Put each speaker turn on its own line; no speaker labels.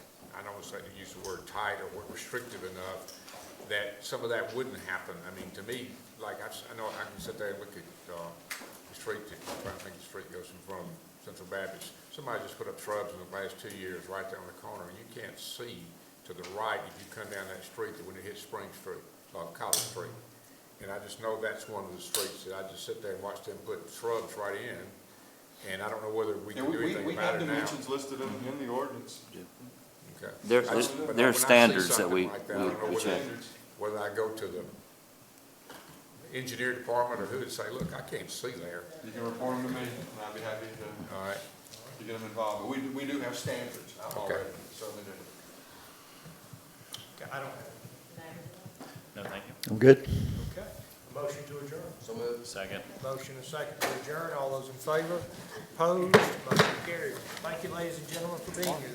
almost, I use the word tight or weren't restrictive enough, that some of that wouldn't happen. I mean, to me, like, I've s- I know I can sit there and look at, uh, the street, that- I think the street goes in front of Central Baptist. Somebody just put up shrubs in the last two years right there on the corner, and you can't see to the right if you come down that street that when it hits Spring Street, uh, College Street. And I just know that's one of the streets that I just sit there and watch them put shrubs right in, and I don't know whether we
Yeah,
can do
we, we,
anything
we
about
have
it now.
dimensions listed in, in the ordinance.
Okay.
There's-
I just-
there's-
but
there are
when I see
standards that
something
we-
like I don't know
we- we
whether-
check.
Whether I go to the engineer department or who and say, look, I can't see there,
You can report them to me, and I'd be happy to,
all right?
to get them involved, but we, do- we do have standards, I'm
Okay.
already, so they do.
Okay, I don't have
No, thank you.
I'm good.
it. Okay. A Motion to adjourn.
So moved.
Second.
Motion and second to adjourn. All those in favor? Opposed? Motion carried. Thank you, ladies and gentlemen, for being here.